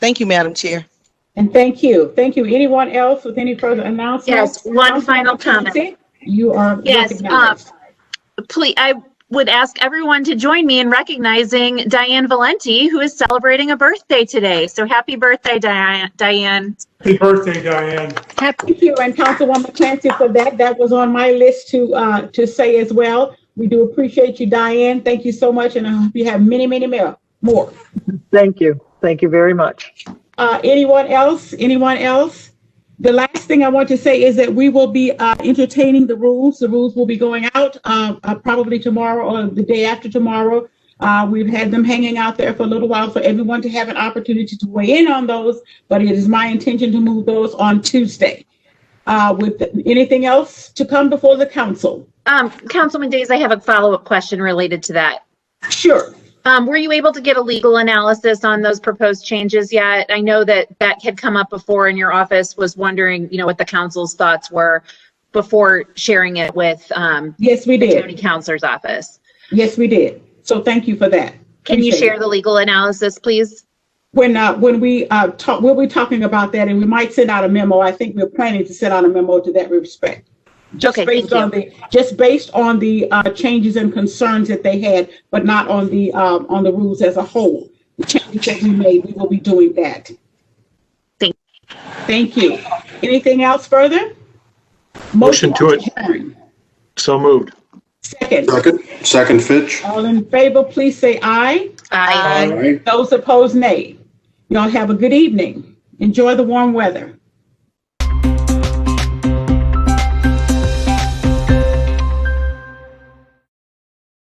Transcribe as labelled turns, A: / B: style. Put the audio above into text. A: Thank you, Madam Chair.
B: And thank you. Thank you. Anyone else with any further announcements?
C: Yes, one final
B: Councilwoman
C: comment.
B: Clancy, You are
C: Yes, uh,
B: recognized.
C: Please, I would ask everyone to join me in recognizing Diane Valenti, who is celebrating a birthday today. So happy birthday, Diane. Diane.
D: Happy birthday, Diane.
B: Thank you, and Councilwoman Clancy for that. That was on my list to, uh, to say as well. We do appreciate you, Diane. Thank you so much, and I hope you have many, many more, more.
E: Thank you. Thank you very much.
B: Uh, anyone else? Anyone else? The last thing I want to say is that we will be uh, entertaining the rules. The rules will be going out uh, uh, probably tomorrow or the day after tomorrow. Uh, we've had them hanging out there for a little while for everyone to have an opportunity to weigh in on those, but it is my intention to move those on Tuesday. Uh, with anything else to come before the council?
C: Um, Councilman Days, I have a follow-up question related to that.
B: Sure.
C: Um, were you able to get a legal analysis on those proposed changes yet? I know that that had come up before in your office, was wondering, you know, what the council's thoughts were before sharing it with, um,
B: Yes, we
C: county
B: did.
C: counselor's office.
B: Yes, we did. So thank you for that.
C: Can you
B: Appreciate it.
C: share the legal analysis, please?
B: When, uh, when we, uh, talk, we'll be talking about that and we might send out a memo. I think we're planning to send out a memo to that respect. Just
C: Okay,
B: based
C: thank you.
B: on the, just based on the, uh, changes and concerns that they had, but not on the, um, on the rules as a whole. The changes that we made, we will be doing that.
C: Thank-
B: Thank you. Anything else further?
D: Motion to it.
B: adjourn.
D: So moved.
B: Second,
F: Second, second Fitch.
B: all in favor, please say aye.
C: Aye.
F: All right.
B: Those opposed, nay. Y'all have a good evening. Enjoy the warm weather.